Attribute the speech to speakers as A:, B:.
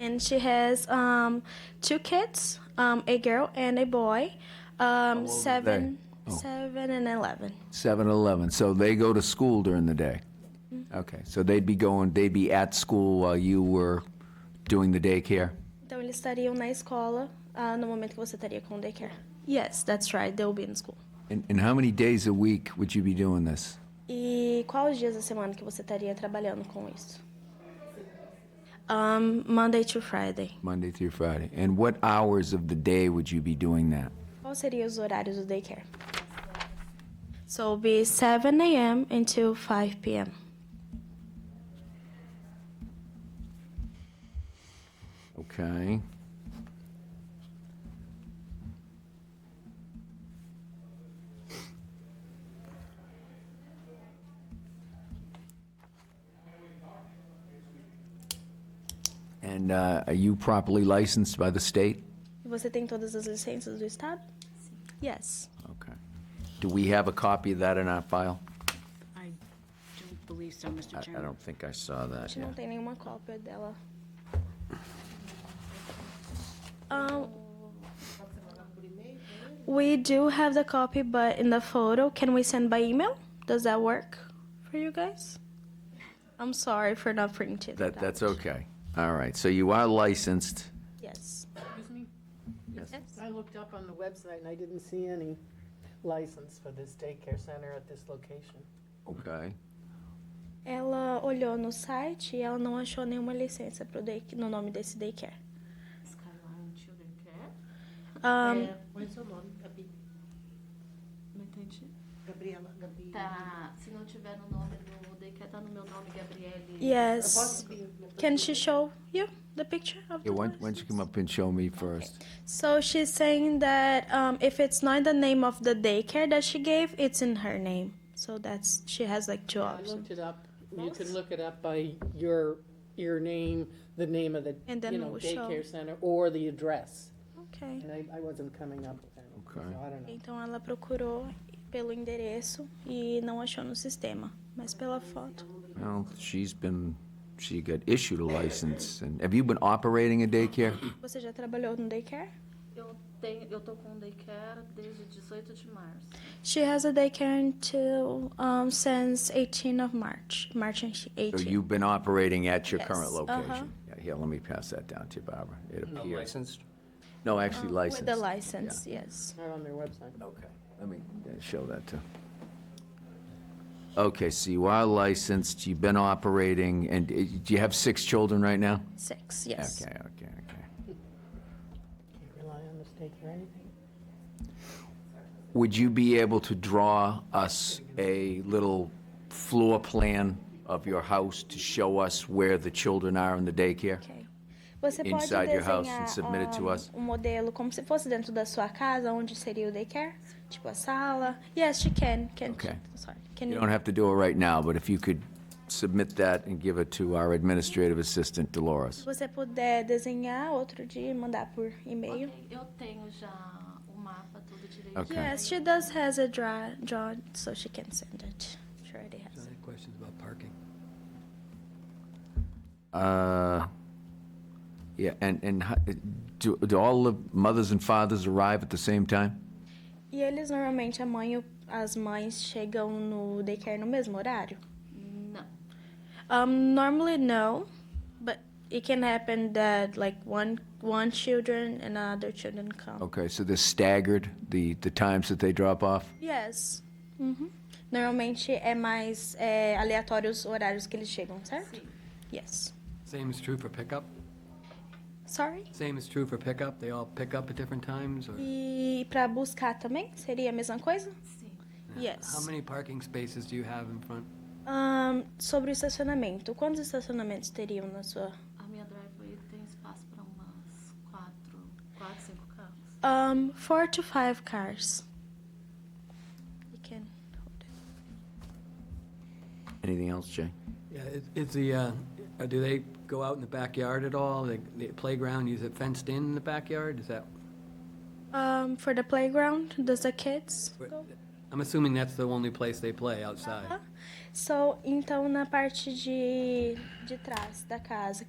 A: and she has um, two kids, um, a girl and a boy, um, seven, seven and eleven.
B: 7-Eleven, so they go to school during the day? Okay, so they'd be going, they'd be at school while you were doing the daycare?
A: Então eles estariam na escola ah, no momento que você estaria com o daycare. Yes, that's right. They'll be in school.
B: And, and how many days a week would you be doing this?
A: E quais os dias da semana que você estaria trabalhando com isso? Um, Monday to Friday.
B: Monday through Friday? And what hours of the day would you be doing that?
A: Quais seriam os horários do daycare? So it'll be 7 a.m. until 5 p.m.
B: Okay. And uh, are you properly licensed by the state?
A: E Você tem todas as licenças do estado? Yes.
B: Okay. Do we have a copy of that in our file?
C: I don't believe so,
B: I
C: Mr.
B: I
C: Chairman.
B: don't think I saw
A: A
B: that,
A: gente
B: yeah.
A: não tem nenhuma cópia dela. Um, we do have the copy, but in the photo, can we send by email? Does that work for you guys? I'm sorry for not printing
B: That,
A: it
B: that's
A: out.
B: okay. All right, so you are licensed.
A: Yes.
D: Excuse me? I looked up on the website and I didn't see any license for this daycare center at this location.
B: Okay.
A: Ela olhou no site e ela não achou nenhuma licença pro day, no nome desse daycare.
C: Skyline Children Care?
A: Um,
E: Qual é o seu nome, Gabi?
C: Não entendi.
E: Gabriela, Gabi.
F: Tá, se não tiver no nome do daycare, tá no meu nome, Gabriele.
E: Eu
A: yes.
E: posso vir?
A: Can she show you the picture of the
B: Yeah, why, why
A: license?
B: don't you come up and show me first?
A: So she's saying that um, if it's not the name of the daycare that she gave, it's in her name. So that's she has like two
D: I
A: options.
D: looked it up. You can look it up by your, your name, the name of the,
A: And then
D: you
A: it
D: know,
A: will show.
D: daycare center or the address.
A: Okay.
D: And I, I wasn't coming up with that.
B: Okay.
D: So I don't know.
A: Então ela procurou pelo endereço e não achou no sistema, mas pela foto.
B: Well, she's been, she got issued a license, and have you been operating a daycare?
A: Você já trabalhou no daycare?
F: Eu, tenho, eu tô com o daycare desde 18 de março.
A: She has a daycare until um, since 18 of March, March
B: So
A: 18.
B: you've been operating at your current
A: Yes, uh-huh.
B: location? Yeah, Here, let me pass that down to you, Barbara. It appears,
G: Licensed?
B: no, actually licensed.
A: Um, Ah, With the license, yes.
D: Not on their website.
B: Okay, let me uh, show that too. Okay, so you are licensed, you've been operating, and uh, do you have six children right now?
A: Six, yes.
B: Okay, okay, okay.
D: Can't rely on the state for anything.
B: Would you be able to draw us a little floor plan of your house to show us where the children are in the daycare?
A: Ok. Você pode
B: Inside your house and
A: desenhar,
B: submit it to
A: um,
B: us.
A: um modelo como se fosse dentro da sua casa, onde seria o daycare? Tipo a sala? Yes, she can. can
B: Okay.
A: Sorry. Can
B: You
A: you-
B: don't have to do it right now, but if you could submit that and give it to our administrative assistant,
A: Se
B: Dolores.
A: você puder desenhar outro dia e mandar por e-mail.
F: Ok, Eu tenho já o mapa, tudo direitinho.
B: Ok.
A: Yes, she does has a draw, drawn, so she can send it. She already has it.
G: Any questions about parking?
B: Uh, Yeah, and, and ho- do, do all the mothers and fathers arrive at the same time?
A: E eles normalmente, a mãe, e o- as mães chegam no daycare no mesmo horário?
F: Não.
A: Um, normally no, but it can happen that like one one children and other children come.
B: Okay, so they're staggered, the, the times that they drop off?
A: Yes. Uhum. Normalmente é mais é, aleatório os horários que eles chegam, certo?
F: Sim.
A: Yes.
G: Same is true for pickup?
A: Sorry.
G: Same is true for pickup? They all pick up at different times, or?
A: E pra buscar também seria a mesma coisa?
F: Sim.
G: How
A: Yes.
G: many parking spaces do you have in front?
A: Ahn, sobre o estacionamento, quantos estacionamentos teriam na sua?
F: A minha driveway tem espaço para umas quatro, quatro, cinco carros.
A: Um, four to five cars. You can hold it.
B: Anything else, Jay?
G: Yeah, is- is the, uh, uh, do they go out in the backyard at all? The the playground, is it fenced in in the backyard? Is that,
A: Um, for the playground, does the kids go? Uh-huh.
G: I'm assuming that's the only place they play, outside?
A: Aham. So, então na parte de, de trás da casa,